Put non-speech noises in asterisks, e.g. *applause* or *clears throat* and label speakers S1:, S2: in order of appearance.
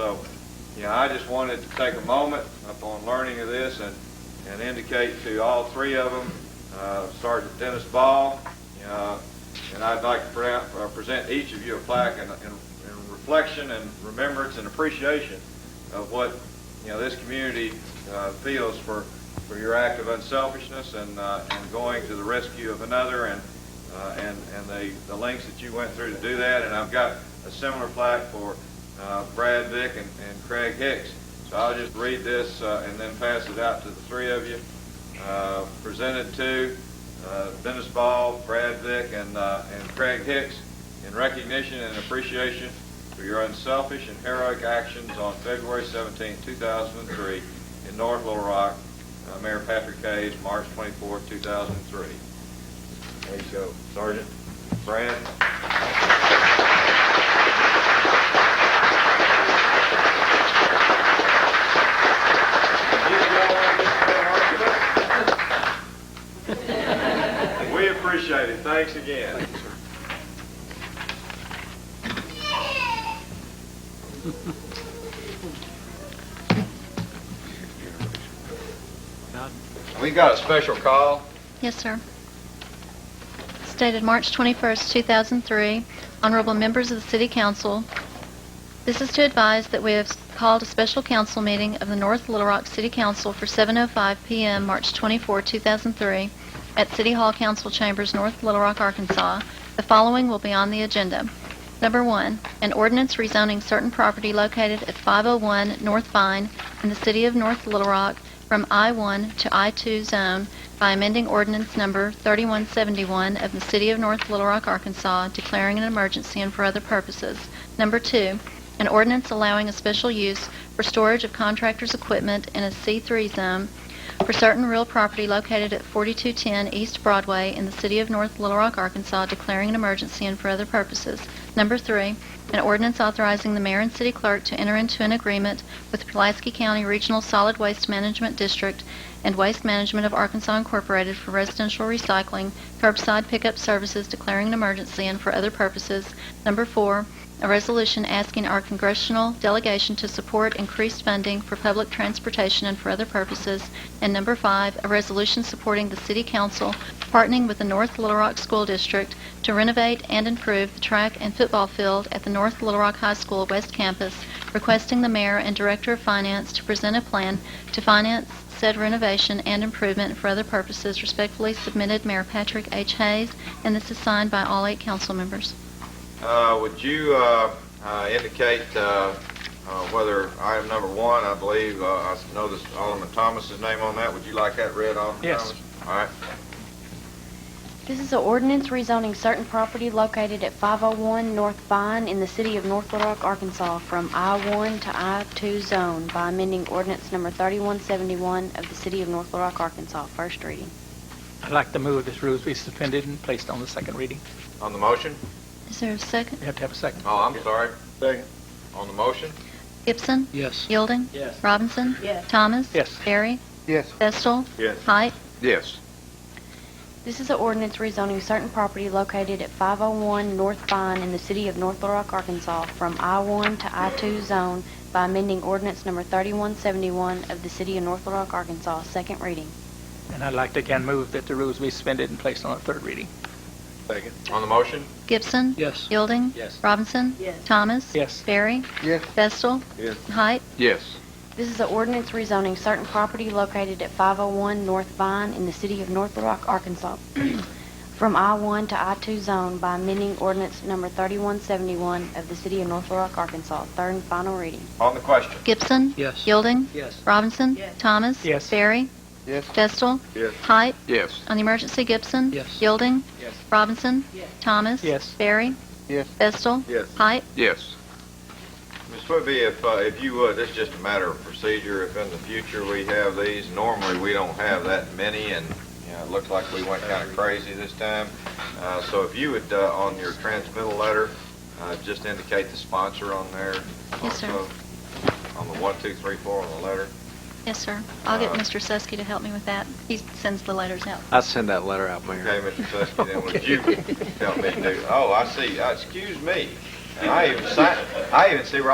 S1: So, yeah, I just wanted to take a moment upon learning of this and, and indicate to all three of them, uh, Sergeant Dennis Ball, uh, and I'd like to pre- uh, present each of you a plaque in, in in reflection and remembrance and appreciation of what, you know, this community uh, feels for, for your act of unselfishness and, uh, and going to the rescue of another and, uh, and, and the, the lengths that you went through to do that. And I've got a similar plaque for uh, Brad Vick and, and Craig Hicks. So I'll just read this uh, and then pass it out to the three of you. Uh, presented to uh, Dennis Ball, Brad Vick, and, uh, and Craig Hicks in recognition and appreciation for your unselfish and heroic actions on February 17, 2003 in North Little Rock. Uh, Mayor Patrick Hayes, March 24, 2003. There you go, Sergeant. Brad? We appreciate it. Thanks again. We got a special call.
S2: Yes, sir. Stated March 21st, 2003, Honorable Members of the City Council, this is to advise that we have called a special council meeting of the North Little Rock City Council for 7:05 PM, March 24, 2003, at City Hall Council Chambers, North Little Rock, Arkansas. The following will be on the agenda. Number one, an ordinance rezoning certain property located at 501 North Vine in the city of North Little Rock from I-1 to I-2 zone by amending ordinance number 3171 of the city of North Little Rock, Arkansas, declaring an emergency and for other purposes. Number two, an ordinance allowing a special use for storage of contractors' equipment in a C3 zone for certain real property located at 4210 East Broadway in the city of North Little Rock, Arkansas, declaring an emergency and for other purposes. Number three, an ordinance authorizing the mayor and city clerk to enter into an agreement with Pulaski County Regional Solid Waste Management District and Waste Management of Arkansas Incorporated for residential recycling, curbside pickup services, declaring an emergency and for other purposes. Number four, a resolution asking our congressional delegation to support increased funding for public transportation and for other purposes. And number five, a resolution supporting the city council partnering with the North Little Rock School District to renovate and improve the track and football field at the North Little Rock High School West Campus, requesting the mayor and director of finance to present a plan to finance said renovation and improvement for other purposes respectfully submitted Mayor Patrick H. Hayes, and this is signed by all eight council members.
S1: Uh, Would you uh, uh, indicate uh, uh, whether item number one, I believe, uh, I know this Alderman Thomas's name on that, would you like that read, Alderman
S3: Yes.
S1: Thomas? All right.
S4: This is an ordinance rezoning certain property located at 501 North Vine in the city of North Little Rock, Arkansas from I-1 to I-2 zone by amending ordinance number 3171 of the city of North Little Rock, Arkansas. First reading.
S3: I'd like to move this rules be suspended and placed on the second reading.
S1: On the motion?
S2: Is there a second?
S3: You have to have a second.
S1: Oh, I'm sorry. Second. On the motion?
S2: Gibson?
S3: Yes.
S2: Yielding?
S3: Yes.
S2: Robinson?
S4: Yes.
S2: Thomas?
S3: Yes.
S2: Barry?
S5: Yes.
S2: Vestal?
S1: Yes.
S2: Height?
S1: Yes.
S4: This is an ordinance rezoning certain property located at 501 North Vine in the city of North Little Rock, Arkansas from I-1 to I-2 zone by amending ordinance number 3171 of the city of North Little Rock, Arkansas. Second reading.
S3: And I'd like to again move that the rules be suspended and placed on the third reading.
S1: Second. On the motion?
S2: Gibson?
S3: Yes.
S2: Yielding?
S3: Yes.
S2: Robinson? Thomas?
S3: Yes.
S2: Barry?
S5: Yes.
S2: Vestal?
S1: Yes.
S2: Height?
S1: Yes.
S4: This is an ordinance rezoning certain property located at 501 North Vine in the city of North Little Rock, Arkansas, *clears throat* from I-1 to I-2 zone by amending ordinance number 3171 of the city of North Little Rock, Arkansas. Third and final reading.
S1: On the question?
S2: Gibson?
S3: Yes.
S2: Yielding?
S3: Yes.
S2: Robinson? Thomas?
S3: Yes.
S2: Barry?
S5: Yes.
S2: Vestal?
S1: Yes.
S2: Height?
S1: Yes.
S2: On the emergency, Gibson?
S3: Yes.
S2: Yielding?
S3: Yes.
S2: Robinson? Thomas?
S3: Yes.
S2: Barry?
S5: Yes.
S2: Vestal?
S1: Yes.
S2: Height?
S1: Yes. Ms. Whitby, if, uh, if you would, it's just a matter of procedure. If in the future we have these, normally we don't have that many, and, you know, it looked like we went kind of crazy this time. Uh, so if you would, uh, on your transmittal letter, uh, just indicate the sponsor on there.
S2: Yes, sir.
S1: also, On the one, two, three, four on the letter.
S2: Yes, sir. I'll get
S1: Uh,
S2: Mr. Susky to help me with that. He sends the letters out.
S6: I'll send that letter out,
S1: Okay,
S6: Mayor.
S1: Mr. Susky, then would you help me do? Oh, I see. Uh, Excuse me. And I even signed, I even see where